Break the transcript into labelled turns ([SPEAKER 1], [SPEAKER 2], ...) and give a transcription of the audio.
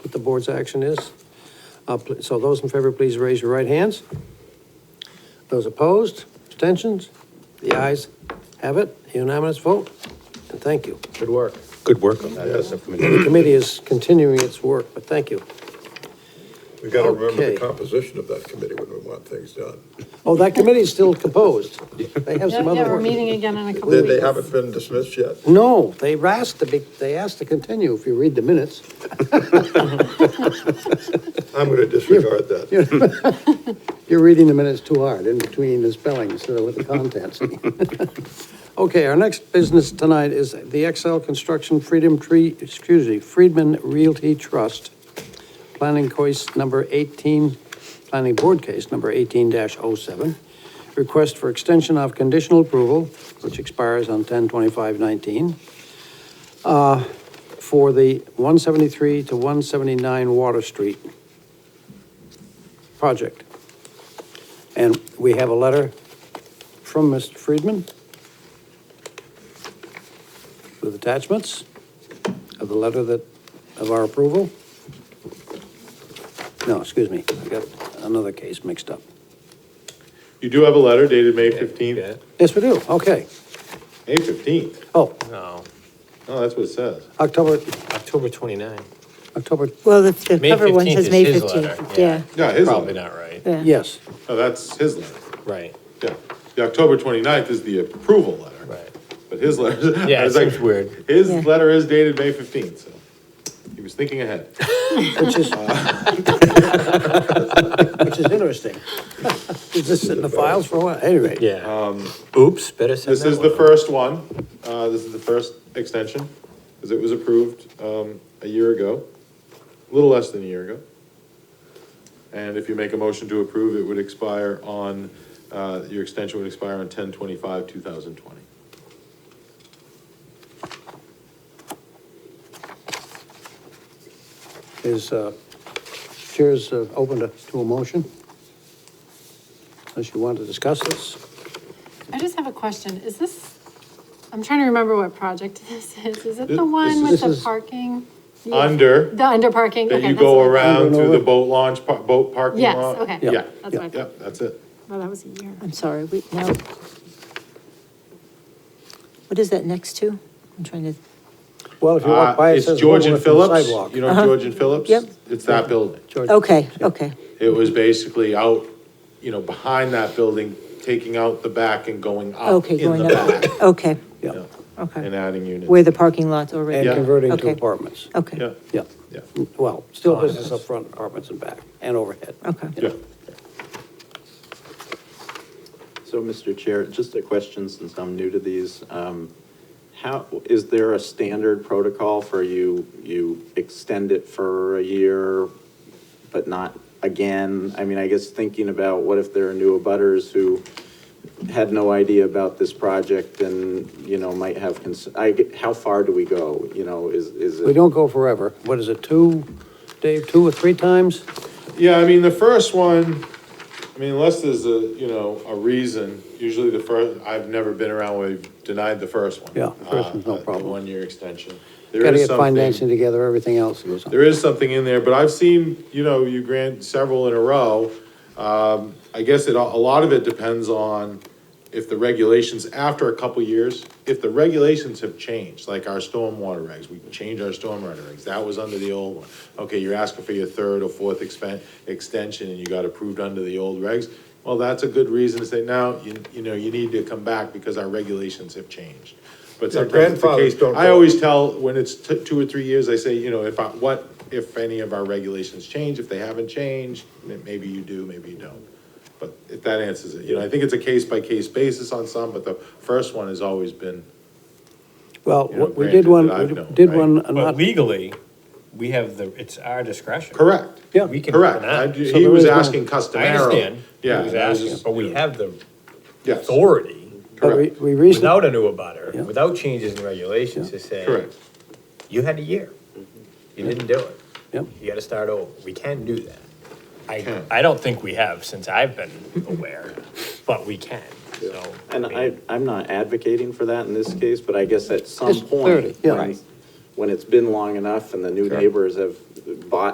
[SPEAKER 1] what the board's action is. Uh, pl- So those in favor, please raise your right hands. Those opposed, abstentions? The ayes have it, unanimous vote, and thank you.
[SPEAKER 2] Good work.
[SPEAKER 3] Good work.
[SPEAKER 1] The committee is continuing its work, but thank you.
[SPEAKER 4] We gotta remember
[SPEAKER 1] Okay.
[SPEAKER 4] the composition of that committee when we want things done.
[SPEAKER 1] Oh, that committee is still composed. They have
[SPEAKER 5] Yeah,
[SPEAKER 1] some
[SPEAKER 5] yeah,
[SPEAKER 1] other
[SPEAKER 5] we're
[SPEAKER 1] work.
[SPEAKER 5] meeting again in a couple
[SPEAKER 4] They,
[SPEAKER 5] of
[SPEAKER 4] they
[SPEAKER 5] weeks.
[SPEAKER 4] haven't been dismissed yet.
[SPEAKER 1] No, they asked to be, they asked to continue, if you read the minutes.
[SPEAKER 4] I'm gonna disregard that.
[SPEAKER 1] You're reading the minutes too hard, in between the spelling instead of with the contents. Okay, our next business tonight is the XL Construction Freedom Tree, excuse me, Friedman Realty Trust, planning case number 18, planning board case number 18-07, request for extension of conditional approval, which expires on 10/25/19, uh, for the 173 to 179 Water Street project. And we have a letter from Mr. Friedman with attachments of the letter that, of our approval. No, excuse me, I got another case mixed up.
[SPEAKER 6] You do have a letter dated May fifteenth,
[SPEAKER 1] Yes, we do, okay.
[SPEAKER 6] May fifteenth,
[SPEAKER 1] Oh,
[SPEAKER 2] No,
[SPEAKER 6] no, that's what it says.
[SPEAKER 1] October,
[SPEAKER 2] October 29.
[SPEAKER 1] October,
[SPEAKER 7] Well, the, the
[SPEAKER 2] May
[SPEAKER 7] cover one
[SPEAKER 2] 15th
[SPEAKER 7] says
[SPEAKER 2] is
[SPEAKER 7] May
[SPEAKER 2] his letter,
[SPEAKER 7] fifteenth,
[SPEAKER 2] yeah.
[SPEAKER 7] yeah,
[SPEAKER 6] Yeah, his
[SPEAKER 2] Probably
[SPEAKER 6] letter,
[SPEAKER 2] not right.
[SPEAKER 7] yeah.
[SPEAKER 1] yes,
[SPEAKER 6] no, that's his letter,
[SPEAKER 2] Right,
[SPEAKER 6] yeah. The October twenty-ninth is the approval letter.
[SPEAKER 2] right.
[SPEAKER 6] But his letter. I
[SPEAKER 2] Yeah, it
[SPEAKER 6] was like,
[SPEAKER 2] seems weird.
[SPEAKER 6] His
[SPEAKER 7] Yeah.
[SPEAKER 6] letter is dated May fifteenth, so he was thinking ahead.
[SPEAKER 1] which is, which is interesting. Is this in the files for what? Anyway.
[SPEAKER 2] Yeah. Oops, better send
[SPEAKER 6] um, This
[SPEAKER 2] that
[SPEAKER 6] is the
[SPEAKER 2] one.
[SPEAKER 6] first one, uh, this is the first extension, because it was approved, um, a year ago, a little less than a year ago. And if you make a motion to approve, it would expire on, uh, your extension would expire on ten twenty-five, two thousand twenty.
[SPEAKER 1] Is, uh, chairs uh, open to, to a motion? Unless you want to discuss this?
[SPEAKER 5] I just have a question. Is this, I'm trying to remember what project this is. Is it
[SPEAKER 6] This-
[SPEAKER 5] the one
[SPEAKER 6] this
[SPEAKER 5] with
[SPEAKER 1] is-
[SPEAKER 5] the parking? Yeah.
[SPEAKER 6] Under,
[SPEAKER 5] The under parking?
[SPEAKER 6] that
[SPEAKER 5] Okay,
[SPEAKER 6] you
[SPEAKER 5] that's what
[SPEAKER 6] go
[SPEAKER 5] I thought.
[SPEAKER 6] around to
[SPEAKER 1] Under.
[SPEAKER 6] the boat launch, par- boat parking
[SPEAKER 5] Yes,
[SPEAKER 6] lot.
[SPEAKER 5] okay.
[SPEAKER 6] Yeah,
[SPEAKER 5] That's what I
[SPEAKER 6] yeah,
[SPEAKER 5] thought.
[SPEAKER 6] that's it.
[SPEAKER 5] Well, that was a year.
[SPEAKER 7] I'm sorry, we, now, what is that next to? I'm trying to,
[SPEAKER 1] Well, if you
[SPEAKER 6] Uh,
[SPEAKER 1] walk by, it
[SPEAKER 6] it's
[SPEAKER 1] says
[SPEAKER 6] George and
[SPEAKER 1] Woolworth on the
[SPEAKER 6] Phillips,
[SPEAKER 1] sidewalk.
[SPEAKER 6] you
[SPEAKER 5] Uh-huh.
[SPEAKER 6] know George and Phillips?
[SPEAKER 7] Yep.
[SPEAKER 6] It's that building.
[SPEAKER 1] George-
[SPEAKER 7] okay, okay,
[SPEAKER 6] It was basically out, you know, behind that building, taking out the back and going up
[SPEAKER 7] okay,
[SPEAKER 6] Ah, in
[SPEAKER 7] going
[SPEAKER 6] the
[SPEAKER 7] up,
[SPEAKER 6] back.
[SPEAKER 7] okay,
[SPEAKER 1] Yeah,
[SPEAKER 6] And
[SPEAKER 7] okay.
[SPEAKER 6] adding
[SPEAKER 7] Where
[SPEAKER 6] units.
[SPEAKER 7] the parking lot's
[SPEAKER 1] and
[SPEAKER 7] already,
[SPEAKER 6] Yeah.
[SPEAKER 1] converting to
[SPEAKER 7] Okay. Oh.
[SPEAKER 1] apartments.
[SPEAKER 7] okay,
[SPEAKER 6] Yeah,
[SPEAKER 1] Yeah,
[SPEAKER 6] yeah,
[SPEAKER 1] well, still business up front, apartments and back, and overhead.
[SPEAKER 7] okay.
[SPEAKER 6] yeah.
[SPEAKER 8] So, Mr. Chair, just a question since I'm new to these. Um, How, is there a standard protocol for you, you extend it for a year, but not again? I mean, I guess thinking about what if there are new abutters who had no idea about this project and, you know, might have, cons- I, get- how far do we go? You know, is, is it?
[SPEAKER 1] We don't go forever. What is it, two, Dave, two or three times?
[SPEAKER 6] Yeah, I mean, the first one, I mean, unless there's a, you know, a reason, usually the first, I've never been around where we've denied the first one.
[SPEAKER 1] Yeah, the first one's no
[SPEAKER 6] Uh, the
[SPEAKER 1] problem.
[SPEAKER 6] One-year extension. There
[SPEAKER 1] Gotta
[SPEAKER 6] is
[SPEAKER 1] get
[SPEAKER 6] something-
[SPEAKER 1] financing together, everything else goes on.
[SPEAKER 6] There is something in there, but I've seen, you know, you grant several in a row. Um, I guess it, a lot of it depends on if the regulations, after a couple years, if the regulations have changed, like our stormwater regs, we changed our stormwater regs, that was under the old one. Okay, you're asking for your third or fourth expen, extension and you got approved under the old regs. Well, that's a good reason to say, now, you, you know, you need to come back because our regulations have changed. But
[SPEAKER 4] Yeah,
[SPEAKER 6] sometimes it's the
[SPEAKER 4] grandfathers
[SPEAKER 6] case-
[SPEAKER 4] don't
[SPEAKER 6] I
[SPEAKER 4] go.
[SPEAKER 6] always tell, when it's t- two or three years, I say, you know, if I, what, if any of our regulations change, if they haven't changed, m- maybe you do, maybe you don't. But if that answers it, you know, I think it's a case by case basis on some, but the first one has always been,
[SPEAKER 1] Well,
[SPEAKER 6] you know,
[SPEAKER 1] we did
[SPEAKER 6] granted
[SPEAKER 1] one,
[SPEAKER 6] that I've
[SPEAKER 1] we
[SPEAKER 6] known,
[SPEAKER 1] did
[SPEAKER 6] right?
[SPEAKER 1] one, uh,
[SPEAKER 2] But
[SPEAKER 1] not,
[SPEAKER 2] legally, we have the, it's our discretion.
[SPEAKER 6] correct.
[SPEAKER 1] Yeah.
[SPEAKER 2] We can.
[SPEAKER 6] Correct,
[SPEAKER 2] deny.
[SPEAKER 6] I do-
[SPEAKER 1] So
[SPEAKER 6] he
[SPEAKER 1] there
[SPEAKER 6] was
[SPEAKER 1] is one.
[SPEAKER 6] asking
[SPEAKER 2] I
[SPEAKER 6] customarily.
[SPEAKER 2] understand.
[SPEAKER 6] Yeah.
[SPEAKER 2] He was
[SPEAKER 6] that was
[SPEAKER 2] asking,
[SPEAKER 6] just-
[SPEAKER 2] but we have the
[SPEAKER 6] Yes,
[SPEAKER 1] but
[SPEAKER 2] authority
[SPEAKER 1] we,
[SPEAKER 6] correct,
[SPEAKER 1] we recently,
[SPEAKER 2] without a new
[SPEAKER 1] Yeah.
[SPEAKER 2] abutter, without changes in regulations to say.
[SPEAKER 6] correct.
[SPEAKER 2] You had a year. You didn't do it.
[SPEAKER 1] Yep.
[SPEAKER 2] You gotta start over. We can do that. I,
[SPEAKER 6] Can.
[SPEAKER 2] I don't think we have since I've been aware, but we can, so.
[SPEAKER 8] And I,
[SPEAKER 2] mean,
[SPEAKER 8] I'm not advocating for that in this case, but I guess at some
[SPEAKER 1] It's 30,
[SPEAKER 8] point,
[SPEAKER 1] yeah.
[SPEAKER 8] when, when it's been long enough and the new neighbors have bought